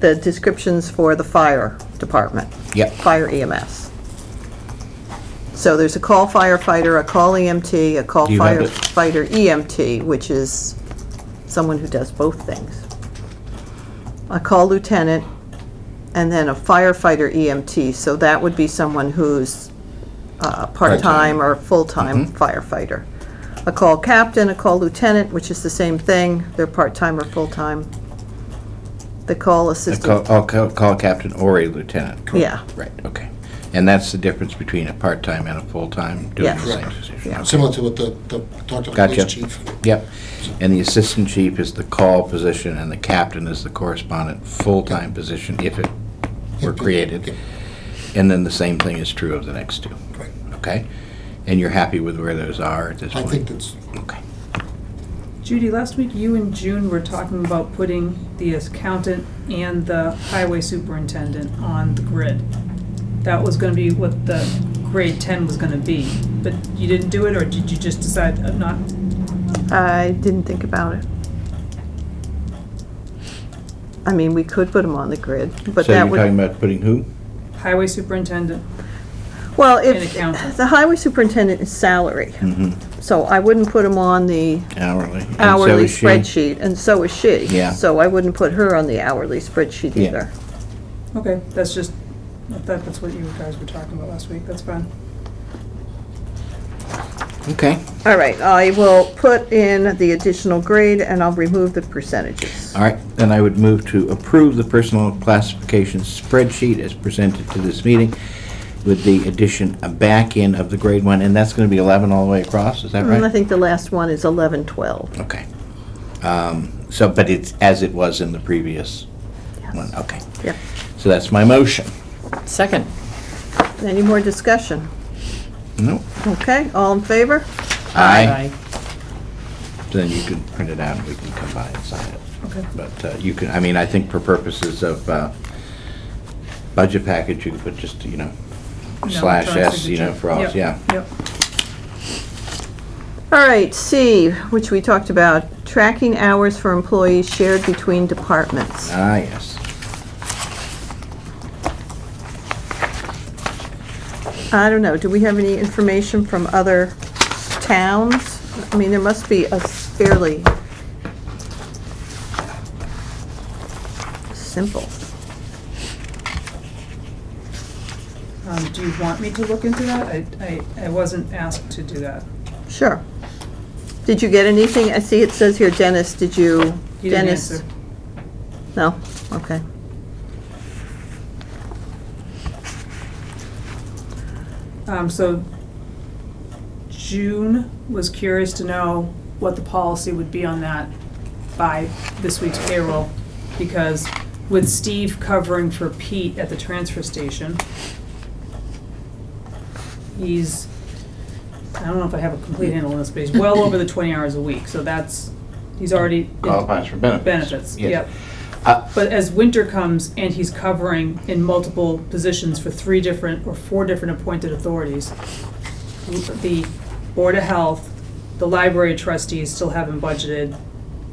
the descriptions for the fire department. Yep. Fire EMS. So there's a call firefighter, a call EMT, a call Do you have it? firefighter EMT, which is someone who does both things. A call lieutenant, and then a firefighter EMT, so that would be someone who's uh, part-time or full-time Mm-hmm. firefighter. A call captain, a call lieutenant, which is the same thing, they're part-time or full-time. The call A assistant, call- I'll ca- call captain or a lieutenant. correct? Yeah. Right, okay. And that's the difference between a part-time and a full-time doing Yes. the same Correct. position. Yeah. Okay. Similar to what the, the, talked to the Gotcha. police chief. Yep. And the assistant chief is the call position, and the captain is the correspondent full-time position if it were created. And then the same thing is true of the next two, Right. okay? And you're happy with where those are at this I point? think that's, Okay. Judy, last week you and June were talking about putting the accountant and the highway superintendent on the grid. That was gonna be what the grade ten was gonna be, but you didn't do it, or did you just decide uh, not? I didn't think about it. I mean, we could put them on the grid, but So that you're talking would, about putting who? Highway superintendent, well, an if, accountant. the highway superintendent is salary, so I wouldn't put him on the Hourly. Mm-hmm. And so hourly is she. spreadsheet, and so is she. Yeah. So I wouldn't put her on the hourly spreadsheet Yeah. either. Okay, that's just, I thought that's what you guys were talking about last week, that's fine. Okay. All right, I will put in the additional grade, and I'll remove the percentages. All right, then I would move to approve the personal classification spreadsheet as presented to this meeting with the addition back in of the grade one, and that's going to be 11 all the way across, is that And Mm, I right? think the last one is 1112. Okay. Um, So, but it's as it was in the previous one, okay. Yep. So that's my motion. Second. Any more discussion? No? Okay, all in favor? Then you can print it out and we can come by and sign it. Okay. But uh, you can, I mean, I think for purposes of uh, budget package, you could put just, you know, No, slash draw S, you know, signature. for all, Yep, yeah. Yep, All right, C, which we talked about, tracking hours for employees shared between departments. Ah, yes. I don't know, do we have any information from other towns? I mean, there must be a fairly simple. um, do you want me to look into that? I, I, I wasn't asked to do that. Sure. Did you get anything? I see it says here, Dennis, did you? He didn't Dennis? answer. No? Okay. Um, so June was curious to know what the policy would be on that by this week's payroll, because with Steve covering for Pete at the transfer station, he's, I don't know if I have a complete handle on this, but he's well over the twenty hours a week, so that's, he's already. Qualifies for benefits. Benefits, Yes. yep. Uh, But as winter comes and he's covering in multiple positions for three different or four different appointed authorities, the Board of Health, the library trustees still haven't budgeted,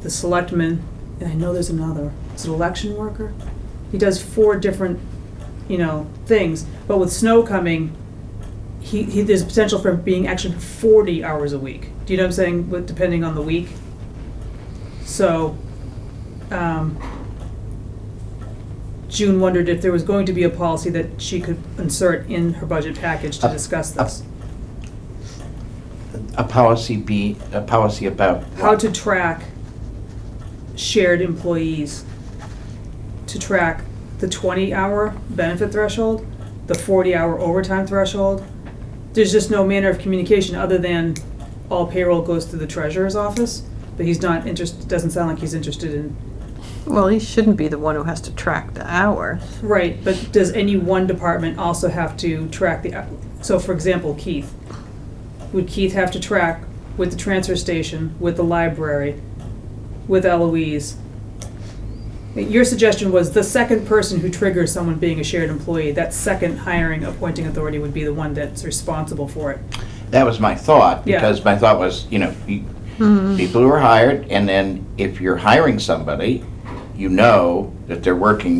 the selectmen, and I know there's another, is it election worker? He does four different, you know, things, but with snow coming, he, he, there's potential for being actually forty hours a week. Do you know what I'm saying, with, depending on the week? So, um, June wondered if there was going to be a policy that she could insert in her budget package to Up- discuss up- this. A policy be, a policy about. How to track shared employees, to track the twenty-hour benefit threshold, the forty-hour overtime threshold. There's just no manner of communication other than all payroll goes through the treasurer's office, but he's not interested, doesn't sound like he's interested in Well, he shouldn't be the one who has to track the hours. Right, but does any one department also have to track the, so for example, Keith? Would Keith have to track with the transfer station, with the library, with Eloise? Your suggestion was the second person who triggers someone being a shared employee, that second hiring appointing authority would be the one that's responsible for it. That was my thought, Yeah. because my thought was, you know, you- people who are hired, and then if you're hiring somebody, you know that they're working